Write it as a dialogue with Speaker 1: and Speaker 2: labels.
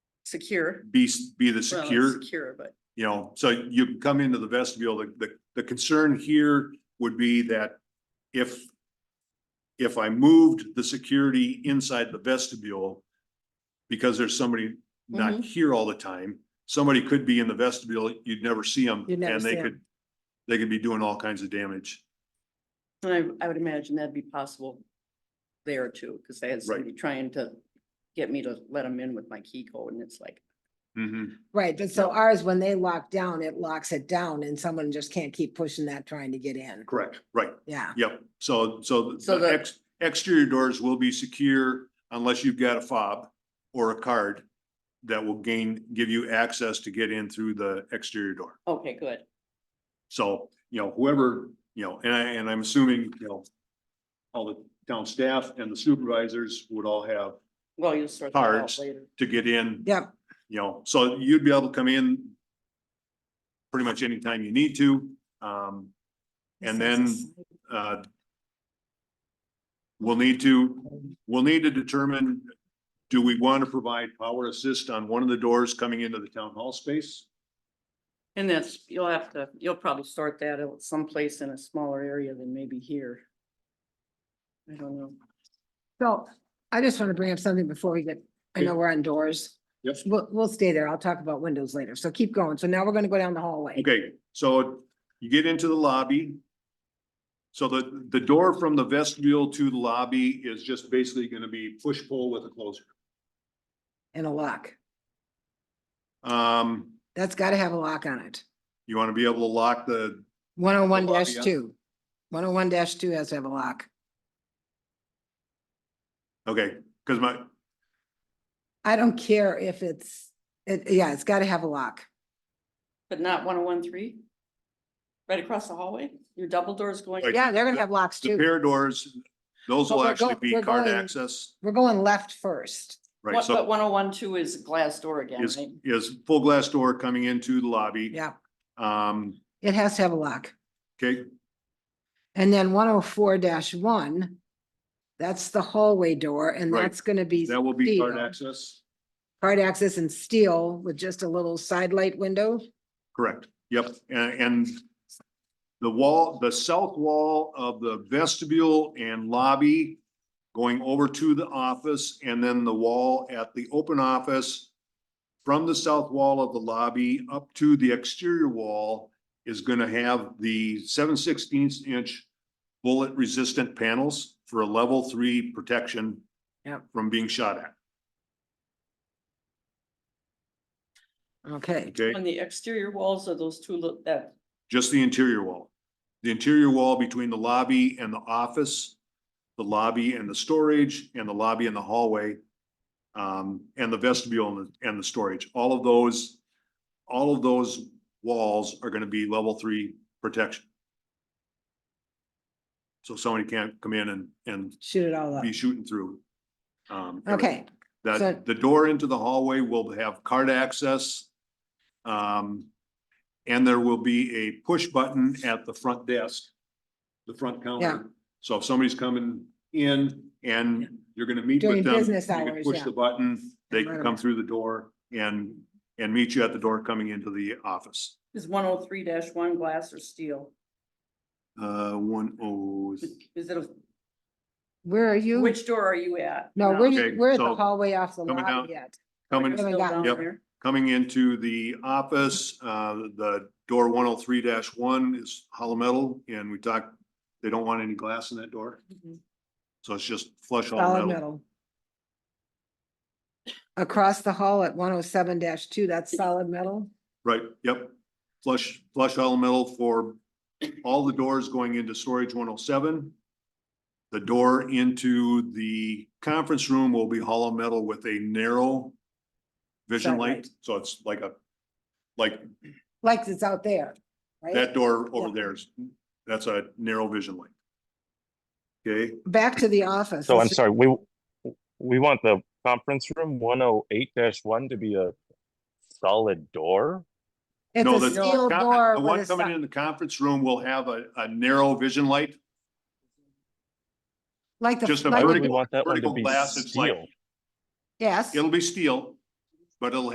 Speaker 1: secure.
Speaker 2: be, be the
Speaker 1: Well,
Speaker 2: secure,
Speaker 1: Secure, but
Speaker 2: you know, so you come into the vestibule, the, the, the concern here would be that if if I moved the security inside the vestibule, because there's somebody not
Speaker 3: Mm-hmm.
Speaker 1: Mhm.
Speaker 2: here all the time, somebody could be in the vestibule, you'd never see them,
Speaker 3: You'd never
Speaker 2: and they
Speaker 3: see 'em.
Speaker 2: could, they could be doing all kinds of damage.
Speaker 1: I, I would imagine that'd be possible there too, because they had somebody trying to get me to let them in with my key code and it's like,
Speaker 2: Mhm.
Speaker 3: Right, but so ours, when they lock down, it locks it down and someone just can't keep pushing that trying to get in.
Speaker 2: correct, right,
Speaker 3: Yeah,
Speaker 2: yep, so, so
Speaker 1: So
Speaker 2: the
Speaker 1: the-
Speaker 2: ex, exterior doors will be secure unless you've got a fob or a card that will gain, give you access to get in through the exterior door.
Speaker 1: okay, good.
Speaker 2: So, you know, whoever, you know, and I, and I'm assuming, you know, all the town staff and the supervisors would all have
Speaker 1: Well, you'll sort that out
Speaker 2: Cards.
Speaker 1: later.
Speaker 2: to get in,
Speaker 3: yep,
Speaker 2: you know, so you'd be able to come in pretty much anytime you need to, um, and then, uh, we'll need to, we'll need to determine, do we want to provide power assist on one of the doors coming into the town hall space?
Speaker 1: And that's, you'll have to, you'll probably sort that out someplace in a smaller area than maybe here. I don't know.
Speaker 3: so I just want to bring up something before we get, I know we're on doors.
Speaker 2: Yep.
Speaker 3: We'll, we'll stay there. I'll talk about windows later. So keep going. So now we're gonna go down the hallway.
Speaker 2: Okay, so you get into the lobby. So the, the door from the vestibule to the lobby is just basically gonna be push pull with a closer.
Speaker 3: And a lock.
Speaker 2: Um,
Speaker 3: That's gotta have a lock on it.
Speaker 2: you wanna be able to lock the,
Speaker 3: One oh one
Speaker 2: The lobby, yeah.
Speaker 3: two. One oh one two has to have a lock.
Speaker 2: okay, cause my,
Speaker 3: I don't care if it's, it, yeah, it's gotta have a lock.
Speaker 1: But not one oh one three? Right across the hallway? Your double doors going?
Speaker 2: Right.
Speaker 3: Yeah, they're gonna have locks
Speaker 2: the
Speaker 3: too.
Speaker 2: pair of doors, those
Speaker 3: But
Speaker 2: will
Speaker 3: we're
Speaker 2: actually
Speaker 3: go-
Speaker 2: be
Speaker 3: we're
Speaker 2: card
Speaker 3: going-
Speaker 2: access,
Speaker 3: We're going left first.
Speaker 2: right?
Speaker 1: What, but
Speaker 2: So
Speaker 1: one oh one two is glass door again,
Speaker 2: is,
Speaker 1: right?
Speaker 2: is full glass door coming into the lobby.
Speaker 3: Yeah,
Speaker 2: Um,
Speaker 3: it has to have a lock.
Speaker 2: okay,
Speaker 3: And then one oh four one, that's the hallway door and
Speaker 2: Right.
Speaker 3: that's gonna be
Speaker 2: that will be card
Speaker 3: steel.
Speaker 2: access,
Speaker 3: Card access and steel with just a little side light window.
Speaker 2: correct, yep, and, and the wall, the south wall of the vestibule and lobby going over to the office and then the wall at the open office from the south wall of the lobby up to the exterior wall is gonna have the seven sixteenths inch bullet resistant panels for a level three protection
Speaker 3: Yep.
Speaker 2: from being shot at,
Speaker 3: Okay,
Speaker 2: okay?
Speaker 1: On the exterior walls of those two, lo- that,
Speaker 2: Just the interior wall. The interior wall between the lobby and the office, the lobby and the storage, and the lobby and the hallway. Um, and the vestibule and the, and the storage, all of those, all of those walls are gonna be level three protection. So somebody can't come in and, and
Speaker 3: shoot it all up.
Speaker 2: be shooting through. um, everything.
Speaker 3: Okay, So-
Speaker 2: That the door into the hallway will have card access. Um, and there will be a push button at the front desk, the front
Speaker 3: Yeah.
Speaker 2: counter. So if somebody's coming in and you're gonna meet
Speaker 3: During
Speaker 2: with them, you
Speaker 3: business
Speaker 2: can
Speaker 3: hours,
Speaker 2: push
Speaker 3: yeah.
Speaker 2: the button, they can
Speaker 3: Right
Speaker 2: come
Speaker 3: away.
Speaker 2: through the door and, and meet you at the door coming into the office.
Speaker 1: is one oh three one glass or steel?
Speaker 2: Uh, one oh,
Speaker 1: Is it a,
Speaker 3: where are you?
Speaker 1: which door are you at?
Speaker 3: No, we're,
Speaker 2: Okay,
Speaker 3: we're at
Speaker 2: so
Speaker 3: the hallway off the
Speaker 2: coming down.
Speaker 3: lobby yet.
Speaker 2: coming,
Speaker 3: Coming
Speaker 1: Still down
Speaker 2: Yep.
Speaker 1: there?
Speaker 2: coming into the office, uh, the door one oh three one is hollow metal and we talked, they don't want any glass in that door. So it's just flush
Speaker 3: Solid
Speaker 2: hollow metal.
Speaker 3: metal. Across the hall at one oh seven two, that's solid metal.
Speaker 2: Right, yep. Flush, flush hollow metal for all the doors going into storage one oh seven. The door into the conference room will be hollow metal with a narrow vision
Speaker 3: Side
Speaker 2: light. So it's like a, like
Speaker 3: Like it's out there, right?
Speaker 2: that door over
Speaker 3: Yeah.
Speaker 2: there is, that's a narrow vision light. Okay,
Speaker 3: Back to the office.
Speaker 4: So I'm
Speaker 3: Let's-
Speaker 4: sorry, we, we want the conference room one oh eight one to be a solid door?
Speaker 3: It's
Speaker 2: no,
Speaker 3: a
Speaker 2: the,
Speaker 3: steel
Speaker 2: the
Speaker 3: door
Speaker 2: one
Speaker 3: with a,
Speaker 2: coming
Speaker 3: si-
Speaker 2: in the conference room will have a, a narrow vision light.
Speaker 3: like the.
Speaker 2: just a
Speaker 3: like
Speaker 4: Why
Speaker 3: the-
Speaker 4: would we
Speaker 2: vertical-
Speaker 4: want that one to
Speaker 2: vertical
Speaker 4: be
Speaker 2: glass, it's like-
Speaker 4: steel?
Speaker 3: Yes.
Speaker 2: It'll be steel, but it'll